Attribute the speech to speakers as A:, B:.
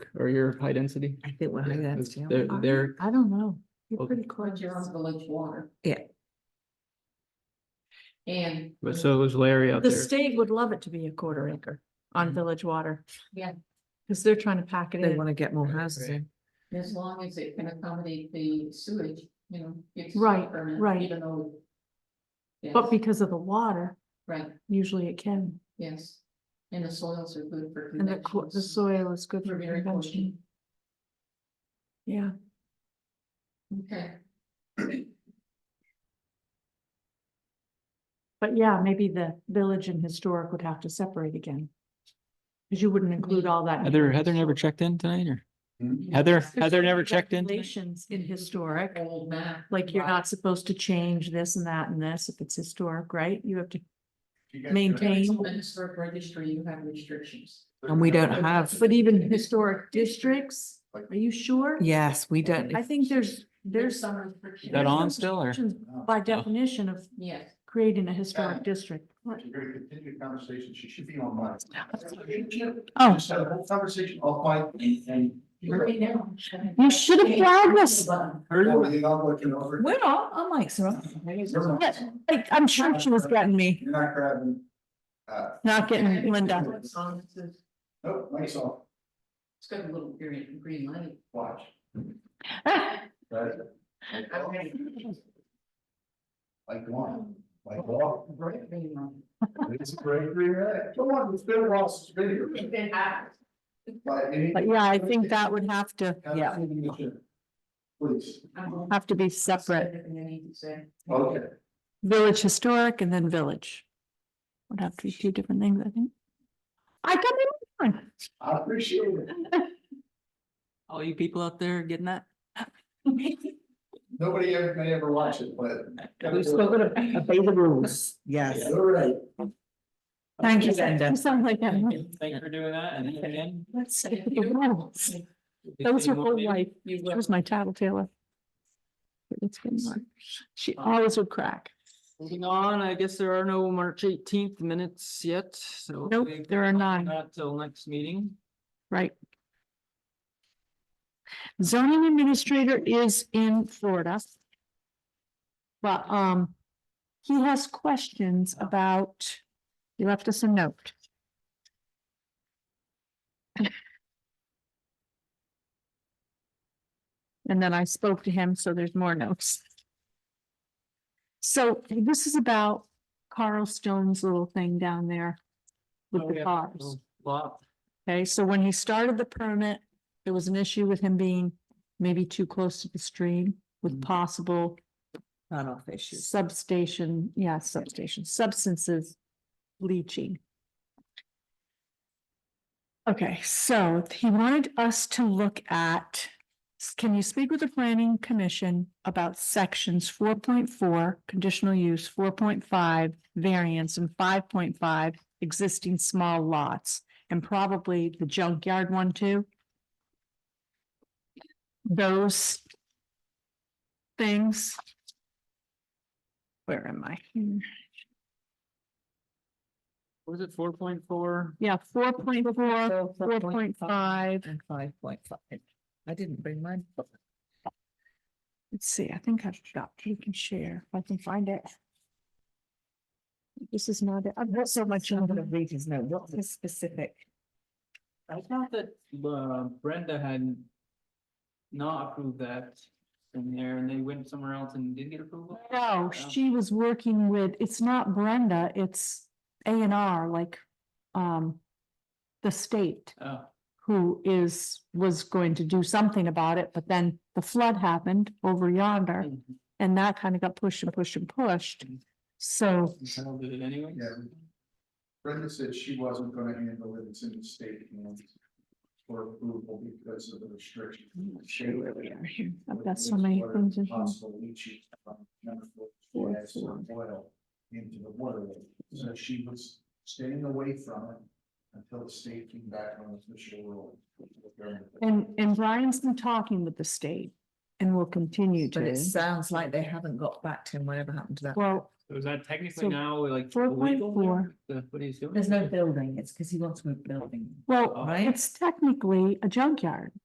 A: or you're high density?
B: I think we're
A: Yeah,
B: high
A: it's-
B: density.
A: They're, they're,
B: I don't know. You're
A: Okay.
B: pretty
C: But
B: close.
C: you're on village water.
B: Yeah.
C: And.
A: but so was Larry out
D: The
A: there.
D: state would love it to be a quarter acre on
A: Mhm.
D: village water.
C: Mm-hmm. Yeah.
D: Cause they're trying to pack it
B: They
D: in.
B: want to get more
A: Right,
B: houses
A: right.
B: in.
C: As long as it can accommodate the sewage, you know. it's
D: Right,
C: permanent,
D: right.
C: Even though.
D: But
C: Yes,
D: because of the water,
C: Right,
D: usually it can,
C: yes, and the soils are good for.
D: and the, co- the
C: convections.
D: soil is good
C: We're
D: for
C: very
D: convention. Yeah,
C: Okay,
D: but yeah, maybe the village and historic would have to separate again. Cause you wouldn't include all that. in
A: Heather,
D: village
A: Heather never
D: historic.
A: checked in tonight or Heather,
D: There's
A: Heather
D: certain
A: never checked in? tonight?
D: Regulations in historic,
C: old map.
D: like you're
C: Wow.
D: not supposed to change this and that and this if it's historic, right? You have to
E: You guys
C: If
D: maintain.
C: it's on the historic registry, you have restrictions.
E: gotta-
B: And we don't have,
D: But even historic districts, are you sure?
B: yes, we don't.
D: I think there's,
C: There's
D: there's.
C: some restrictions.
A: Is that on still or? Oh.
D: restrictions By definition of
C: Yes.
D: creating a historic district.
E: If you're gonna continue the conversation, she should be on mine.
D: Oh.
E: Just had a whole conversation off mic and- and.
C: Right now.
D: You should have flagged us.
E: Over the other, you know, over-
B: We're all, our mics are on.
E: You're not-
D: Like, I'm sure she was getting me,
E: you're not grabbing. Uh,
D: not getting Linda.
C: It's on, it says-
E: nope, mic's off,
C: it's got a little green, green light.
E: watch. Right. Like one, like one.
C: Bright green light.
E: It's a great rewrite. Come on, it's been a while since video.
C: It been hours.
E: But it-
D: But yeah, I think that would have to, yeah,
E: Please,
C: I'm-
D: have to be separate,
C: And I need to say.
E: okay.
D: village historic and then village. Would have to be two different things, I think. I got it.
E: I appreciate it.
A: All you people out there getting that?
E: Nobody ever may ever watch it, but.
B: We've spoken of obey the rules. Yes.
E: All right.
D: Thank you,
B: Linda.
D: You sound like that.
A: Thanks for doing that and again.
D: Let's say the rules. That was her whole life. She was my tattletale. It's been like, she always would crack.
A: Moving on, I guess there are no March eighteenth minutes yet, so.
D: Nope,
A: we-
D: there are none,
A: Not till next meeting.
D: right? Zoning administrator is in Florida. But, um, he has questions about, he left us a note. And then I spoke to him, so there's more notes. So this is about Carl Stone's little thing down there with
A: Oh,
D: the
A: yeah.
D: cars.
A: Lot.
D: Okay, so when he started the permit, there was an issue with him being maybe too close to the stream with
A: Mhm.
D: possible
B: Not off issues.
D: substation, yeah, substation, substances leaching. Okay, so he wanted us to look at, s- can you speak with the planning commission about sections four point four, conditional use, four point five, variance, and five point five, existing small lots, and probably the junkyard one too? Those things. Where am I? here?
A: Was it four point four?
D: Yeah, four point four, four point
B: 4.5
D: five.
B: And five point five. I didn't bring mine.
D: Let's see, I think I've got, you can share, if I can find it. This is not, it. I've got so much.
B: I'm
D: in
B: gonna
D: here.
B: read his note. What's the specific?
A: I thought that uh, Brenda had not approved that in there and they went somewhere else and did get approval. Oh.
D: No, she was working with, it's not Brenda, it's A and R, like, um, the state
A: Oh,
D: who is, was going to do something about it, but then the flood happened over yonder
A: mhm.
D: and that kind of got pushed and pushed and pushed. So,
A: I'll do it anyway.
E: Yeah. Brenda said she wasn't gonna handle it, it's in the state hands for approval because of the restriction.
D: Mm,
B: sure where we are here.
D: I've got so many things in here.
E: Possible leaching from chemical gas or oil into the water, so she was staying away from it until the state came back on official rule.
D: And, and Brian's been talking with the state and will continue
B: But uh, it
D: to.
B: sounds like they haven't got back to him, whatever happened to that.
D: Well,
A: So is that technically
D: So,
A: now like?
D: 4.4.
A: The- What are you doing?
B: There's no building, it's because he wants to move building.
D: Well,
A: Right.
D: it's technically a junkyard.